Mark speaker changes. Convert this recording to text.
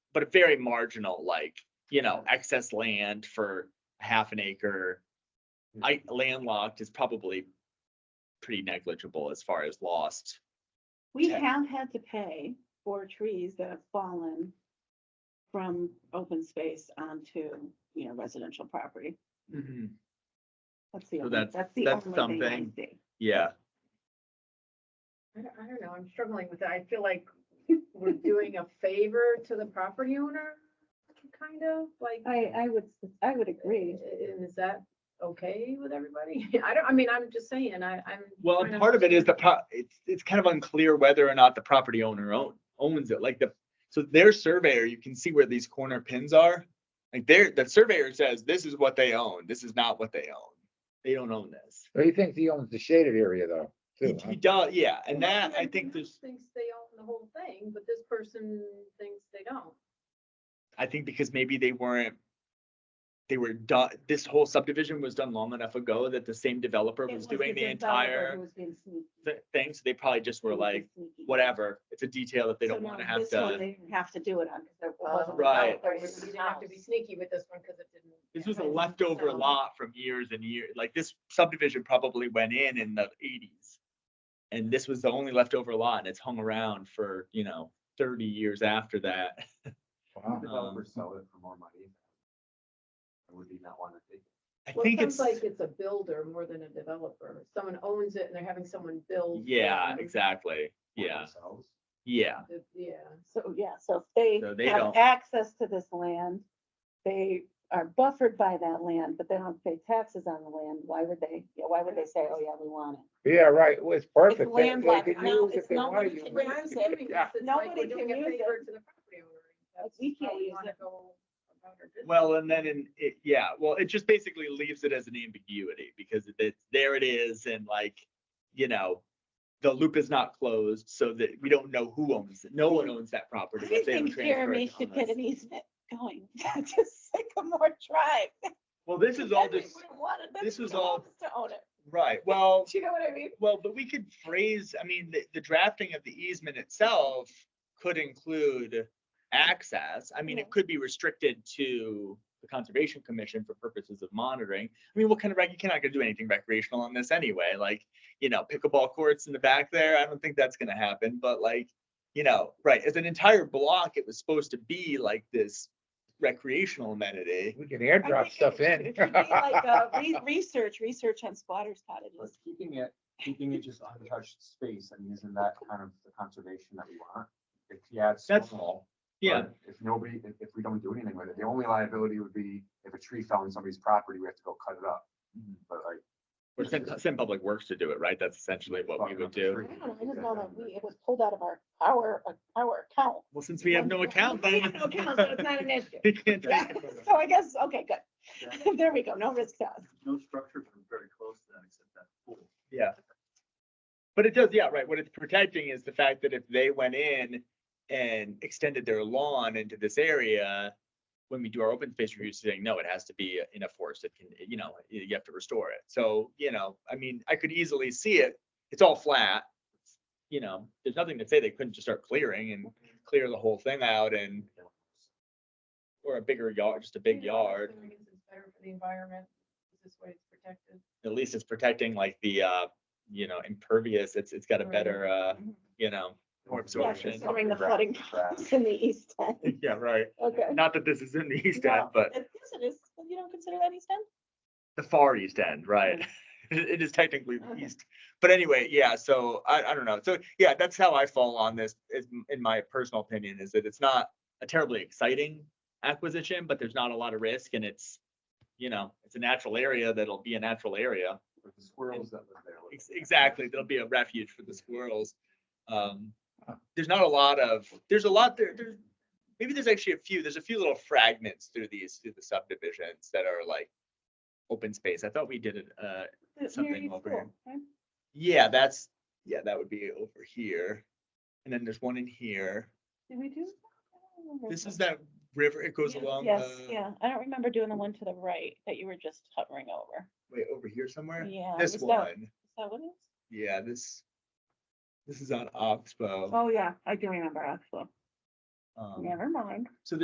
Speaker 1: but very marginal, like, you know, excess land for half an acre. I landlocked is probably pretty negligible as far as lost.
Speaker 2: We
Speaker 1: Tech.
Speaker 2: have had to pay for trees that have fallen from open space onto, you know, residential property.
Speaker 1: Mm-hmm.
Speaker 2: That's the
Speaker 1: So
Speaker 2: only,
Speaker 1: that's-
Speaker 2: that's the
Speaker 1: that's
Speaker 2: only thing I
Speaker 1: something.
Speaker 2: see.
Speaker 1: Yeah,
Speaker 3: I don't, I don't know, I'm struggling with it. I feel like we're doing a favor to the property owner, kind of, like.
Speaker 2: I, I would, I would agree.
Speaker 3: i- Is that okay with everybody? I don't, I mean, I'm just saying, I, I'm.
Speaker 1: well,
Speaker 3: trying to
Speaker 1: part of it is the
Speaker 3: understand.
Speaker 1: pro, it's, it's kind of unclear whether or not the property owner own, owns it, like the, so their surveyor, you can see where these corner pins are. Like their, the surveyor says, this is what they own, this is not what they own, they don't own this.
Speaker 4: So he thinks he owns the shaded area though,
Speaker 1: He
Speaker 4: too. huh?
Speaker 1: he does, yeah, and
Speaker 3: Well,
Speaker 1: that, I
Speaker 3: everyone
Speaker 1: think
Speaker 3: else
Speaker 1: there's,
Speaker 3: Thinks they own the whole thing, but this person thinks they don't.
Speaker 1: I think because maybe they weren't. They were done, this whole subdivision was done long enough ago that the same developer
Speaker 2: It
Speaker 1: was doing the
Speaker 2: developer
Speaker 1: entire
Speaker 2: who was being sneaky.
Speaker 1: thi- thing, so they probably just were
Speaker 2: He was being
Speaker 1: like,
Speaker 2: sneaky.
Speaker 1: whatever, it's a detail that they
Speaker 2: So
Speaker 1: don't
Speaker 2: now
Speaker 1: wanna have
Speaker 2: this one
Speaker 1: done.
Speaker 2: They didn't have to do it on, because there
Speaker 3: Um,
Speaker 2: wasn't.
Speaker 1: Right.
Speaker 3: there was- You didn't have to be sneaky with this one because it didn't.
Speaker 1: This was a
Speaker 3: Right.
Speaker 1: leftover
Speaker 3: So-
Speaker 1: lot from years and years, like this subdivision probably went in in the eighties. And this was the only leftover lot and it's hung around for, you know, thirty years after that.
Speaker 4: Wow.
Speaker 1: Developers
Speaker 5: sell it for more money. Would he not want to take?
Speaker 1: I
Speaker 3: Well, it
Speaker 1: think it's,
Speaker 3: sounds like it's a builder more than a developer. Someone owns it and they're having someone build. for
Speaker 1: yeah,
Speaker 3: them.
Speaker 1: exactly, yeah, yeah.
Speaker 3: The- Yeah.
Speaker 2: So, yeah, so if
Speaker 1: So
Speaker 2: they
Speaker 1: they
Speaker 2: have
Speaker 1: don't-
Speaker 2: access to this land, they are buffered by that land, but they don't pay taxes on the land. Why would they, yeah, why would they say, oh, yeah, we want it?
Speaker 4: Yeah, right, well, it's perfect. They- They
Speaker 2: landlocked.
Speaker 4: could
Speaker 2: No,
Speaker 4: use
Speaker 2: it's
Speaker 4: if they
Speaker 2: not
Speaker 4: wanna
Speaker 2: what
Speaker 4: use
Speaker 2: it
Speaker 3: When
Speaker 4: it.
Speaker 3: I'm doing this, it's like
Speaker 2: Nobody
Speaker 3: we're
Speaker 2: can
Speaker 3: doing a
Speaker 2: use
Speaker 3: favor
Speaker 2: it.
Speaker 3: to the property owner. That's
Speaker 2: We can't
Speaker 3: how we
Speaker 2: use
Speaker 3: wanna
Speaker 2: it.
Speaker 3: go about our business.
Speaker 1: Well, and then in, it, yeah, well, it just basically leaves it as an ambiguity because it- it's, there it is and like, you know, the loop is not closed so that we don't know who owns it. No one owns that property.
Speaker 2: I
Speaker 1: if they don't
Speaker 2: think
Speaker 1: transfer it
Speaker 2: Jeremy
Speaker 1: to
Speaker 2: should
Speaker 1: us.
Speaker 2: get an easement going to Sycamore Drive.
Speaker 1: Well, this is all just, this was all-
Speaker 2: To own it.
Speaker 1: right, well,
Speaker 2: Do you know what I mean?
Speaker 1: well, but we could phrase, I mean, the, the drafting of the easement itself could include access. I mean,
Speaker 2: Yeah.
Speaker 1: it could be restricted to the Conservation Commission for purposes of monitoring. I mean, what kind of, rec- you cannot gonna do anything recreational on this anyway, like, you know, pickleball courts in the back there, I don't think that's gonna happen, but like, you know, right, as an entire block, it was supposed to be like this recreational amenity.
Speaker 4: We can
Speaker 2: I
Speaker 4: airdrop
Speaker 2: think it
Speaker 4: stuff
Speaker 2: should-
Speaker 4: in.
Speaker 2: it should be like, uh, re- Research, research on squatters cottages.
Speaker 5: Keeping it, keeping it just untouched space, I mean, isn't that kind of the conservation that we want? If, yeah, it's
Speaker 1: That's-
Speaker 5: small. but If nobody, if, if we don't do anything with it, the only liability would be if a tree fell on somebody's property, we have to go cut it up.
Speaker 4: Mm-hmm.
Speaker 5: But like.
Speaker 1: Or send, send Public Works to do it, right? That's essentially what we
Speaker 5: Fucking
Speaker 1: would
Speaker 5: up the
Speaker 1: do.
Speaker 5: tree.
Speaker 2: I don't know, I just know that we, it was pulled out of our, our, our account.
Speaker 1: Well, since we have no account,
Speaker 2: We
Speaker 1: then.
Speaker 2: have no account, so it's not an issue.
Speaker 1: We can't take it.
Speaker 2: So I guess, okay, good. There we go, no risk to us.
Speaker 6: No structures are very close to that except that pool.
Speaker 1: Yeah. But it does, yeah, right. What it's protecting is the fact that if they went in and extended their lawn into this area, when we do our open space review, saying, no, it has to be in a forest, it can, you know, you you have to restore it. So, you know, I mean, I could easily see it. It's all flat. You know, there's nothing to say they couldn't just start clearing and clear the whole thing out and or a bigger yard, just a big
Speaker 3: You know,
Speaker 1: yard.
Speaker 3: assuming It's it's better for the environment, this way it's protected.
Speaker 1: At least it's protecting like the, uh, you know, impervious, it's, it's got a
Speaker 3: Right.
Speaker 1: better, uh, you know, Or
Speaker 2: Yeah,
Speaker 1: absorption.
Speaker 2: Considering the flooding problems in the east end,
Speaker 1: Yeah, right.
Speaker 2: okay.
Speaker 1: Not that this is in the East End,
Speaker 2: No,
Speaker 1: but
Speaker 2: it- Yes, it is, Well, you don't consider that east end?
Speaker 1: the Far East End, right? It is technically the
Speaker 2: Okay.
Speaker 1: east, but anyway, yeah, so I, I don't know. So, yeah, that's how I fall on this, is m- in my personal opinion, is that it's not a terribly exciting acquisition, but there's not a lot of risk and it's, you know, it's a natural area that'll be a natural area.
Speaker 5: With the squirrels that live there.
Speaker 1: Ex- Exactly, there'll be a refuge for the squirrels. Um, there's not a lot of, there's a lot there, there's, maybe there's actually a few, there's a few little fragments through these, through the subdivisions that are like open space. I thought we did it, uh,
Speaker 2: Near
Speaker 1: Something
Speaker 2: each
Speaker 1: over
Speaker 2: school,
Speaker 1: here.
Speaker 2: right?
Speaker 1: yeah, that's, yeah, that would be over here. And then there's one in here.
Speaker 2: Did we do? I don't remember.
Speaker 1: This is that river, it goes
Speaker 2: Yes,
Speaker 1: along uh,
Speaker 2: Yes,
Speaker 1: the,
Speaker 2: yeah, I don't remember doing the one to the right that you were just hovering over.
Speaker 1: wait, over here somewhere?
Speaker 2: Yeah.
Speaker 1: This
Speaker 2: is that-
Speaker 1: one,
Speaker 2: Is that what it is?
Speaker 1: yeah, this, this is on Oxbow.
Speaker 2: Oh, yeah, I do remember, actually.
Speaker 1: um,
Speaker 2: Never mind.